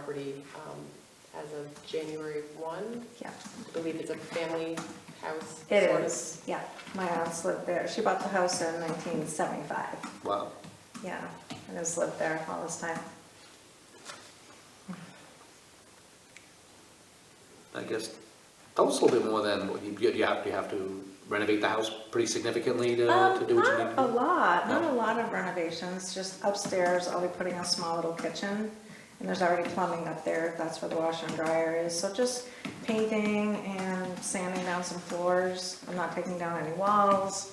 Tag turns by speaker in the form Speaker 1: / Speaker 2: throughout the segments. Speaker 1: property um, as of January 1.
Speaker 2: Yeah,
Speaker 1: I believe it's a family house. sort
Speaker 2: it
Speaker 1: of.
Speaker 2: is, yeah. My aunt's lived there. She bought the house in 1975.
Speaker 3: Wow.
Speaker 2: Yeah, and has lived there all this time.
Speaker 3: I guess that was a little bit more than, what you, you have, you have to renovate the house pretty significantly to,
Speaker 1: Um,
Speaker 3: to do what you need
Speaker 2: Um, Not a
Speaker 3: to do.
Speaker 2: lot, not
Speaker 3: No.
Speaker 2: a lot of renovations, just upstairs, I'll be putting a small little kitchen. And there's already plumbing up there, that's where the washer and dryer is, so just painting and sanding down some floors. I'm not taking down any walls,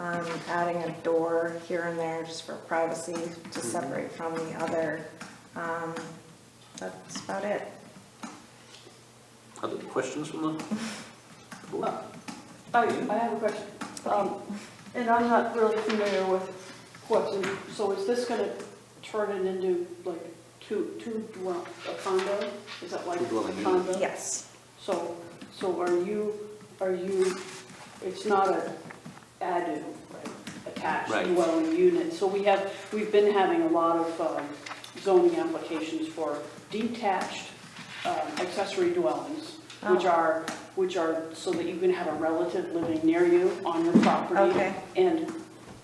Speaker 2: um, adding a door here and there just for privacy
Speaker 3: Mm-hmm.
Speaker 2: to separate from the other. Um, that's about it.
Speaker 3: Other questions from the board?
Speaker 4: I, Oh, I have a question. Um, and I'm not really familiar with what's in, so is this gonna turn it into like two, two dwell, a condo? Is that like
Speaker 3: Two dwelling
Speaker 4: a
Speaker 3: unit.
Speaker 4: condo?
Speaker 2: Yes,
Speaker 4: So, so are you, are you, it's not a ADU, right, attached
Speaker 3: Right.
Speaker 4: dwelling unit? So we have, we've been having a lot of um, zoning applications for detached um, accessory dwellings, which
Speaker 2: Oh.
Speaker 4: are, which are so that you can have a relative living near you on your property.
Speaker 2: Okay.
Speaker 4: And,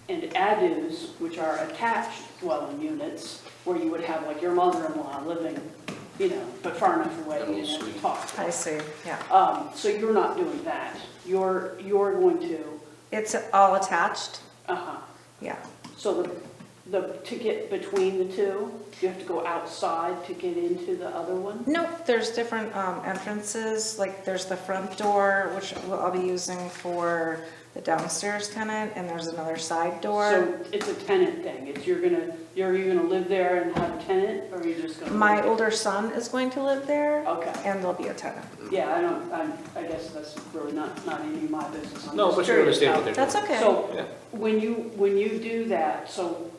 Speaker 4: and ADUs, which are attached dwelling units, where you would have like your mother-in-law living, you know, but far enough away
Speaker 3: That little
Speaker 4: you do
Speaker 3: suite.
Speaker 4: to talk.
Speaker 2: I see, yeah.
Speaker 4: Um, so you're not doing that. You're, you're going to,
Speaker 2: It's all attached,
Speaker 4: uh-huh.
Speaker 2: yeah.
Speaker 4: So the, the, to get between the two, you have to go outside to get into the other one?
Speaker 2: Nope, there's different um, entrances, like there's the front door, which I'll be using for the downstairs tenant, and there's another side door.
Speaker 4: So it's a tenant thing. It's, you're gonna, you're, you gonna live there and have a tenant, or you're just gonna?
Speaker 2: My older son is going to live there,
Speaker 4: Okay.
Speaker 2: and there'll be a tenant.
Speaker 4: Yeah, I don't, I'm, I guess that's really not, not any of my business. I'm
Speaker 3: No,
Speaker 4: just
Speaker 3: but you
Speaker 4: curious
Speaker 3: understand
Speaker 4: how-
Speaker 3: what they're doing.
Speaker 2: That's okay.
Speaker 4: So
Speaker 3: Yeah.
Speaker 4: when you, when you do that, so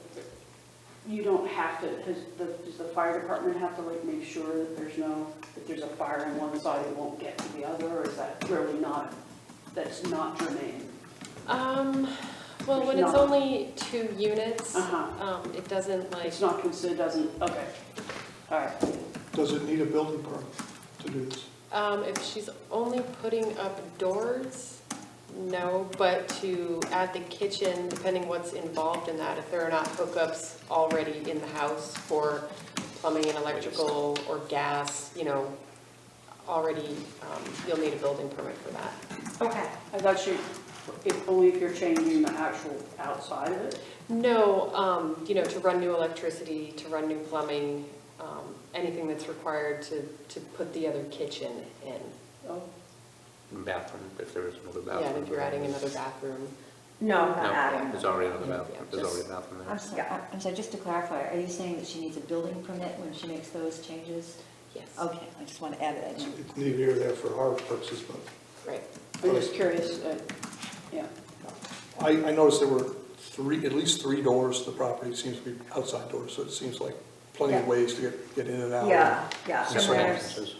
Speaker 4: you don't have to, has the, does the fire department have to like make sure that there's no, that there's a fire on one side, it won't get to the other, or is that really not, that's not germane?
Speaker 1: Um, well, when it's
Speaker 4: There's not-
Speaker 1: only two units,
Speaker 4: Uh-huh.
Speaker 1: um, it doesn't like,
Speaker 4: It's not considered, doesn't, okay, all right.
Speaker 5: Does it need a building permit to do this?
Speaker 1: um, if she's only putting up doors, no, but to add the kitchen, depending what's involved in that, if there are not hookups already in the house for plumbing and electrical or gas, you know, already, um, you'll need a building permit for that.
Speaker 2: Okay.
Speaker 4: I thought you, if, only if you're changing the actual outside of it?
Speaker 1: No, um, you know, to run new electricity, to run new plumbing, um, anything that's required to, to put the other kitchen in.
Speaker 4: Oh,
Speaker 3: Bathroom, if there is another
Speaker 1: Yeah,
Speaker 3: bathroom.
Speaker 1: and if you're adding another bathroom.
Speaker 2: No, I'm not
Speaker 3: No,
Speaker 2: adding.
Speaker 3: there's already another
Speaker 1: Yeah,
Speaker 3: bathroom, there's
Speaker 1: just-
Speaker 3: already a bathroom
Speaker 6: I'm
Speaker 3: there.
Speaker 6: sorry, uh, I'm sorry, just to clarify, are you saying that she needs a building permit when she makes those changes?
Speaker 1: Yes.
Speaker 6: Okay, I just want to add that in.
Speaker 5: It's needed here or there for our purposes, but
Speaker 1: Right.
Speaker 4: I'm just curious, uh, yeah,
Speaker 5: I, I noticed there were three, at least three doors to the property, it seems to be outside doors, so it seems like plenty of
Speaker 2: Yeah.
Speaker 5: ways to get, get in and out.
Speaker 2: Yeah, yeah.
Speaker 5: So
Speaker 2: And
Speaker 5: some
Speaker 2: there's,
Speaker 3: entrances.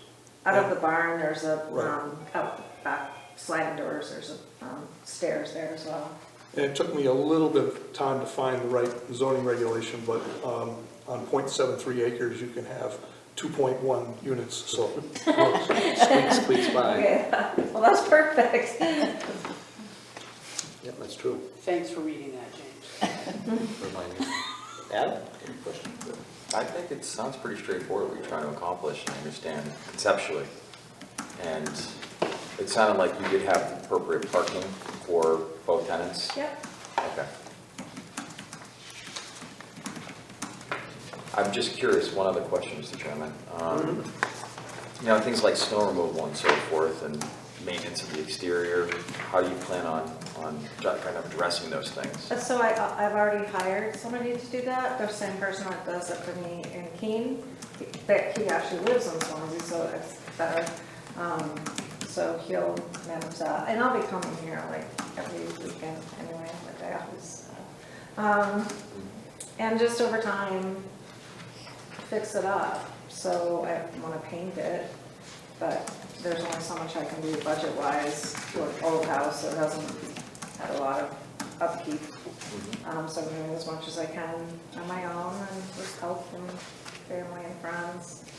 Speaker 2: out of the barn, there's a,
Speaker 5: Right.
Speaker 2: um, out the back sliding doors, there's a um, stairs there as well.
Speaker 5: And it took me a little bit of time to find the right zoning regulation, but um, on .73 acres, you can have 2.1 units, so.
Speaker 3: Squeak, squeak by.
Speaker 2: Okay, well, that's perfect.
Speaker 3: Yeah, that's true.
Speaker 4: thanks for reading that, James.
Speaker 3: Remind me. Adam, any questions?
Speaker 7: I think it sounds pretty straightforward what you're trying to accomplish, I understand conceptually. And it sounded like you did have appropriate parking for both tenants?
Speaker 2: Yep.
Speaker 7: Okay. I'm just curious, one other question, Mr. Chairman. Um, You know, things like snow removal and so forth, and maintenance of the exterior, how do you plan on, on kind of addressing those things?
Speaker 2: Uh, So I, I've already hired somebody to do that, the same person that does it for me in Keene. That he actually lives in Swansea, so it's better. Um, so he'll manage that, and I'll be coming here like every weekend anyway, my day off is. uh, Um, and just over time, fix it up. So I wanna paint it, but there's only so much I can do budget-wise to an old house that hasn't had a lot of upkeep. Um, so I'm doing as much as I can on my own and with help from family and friends.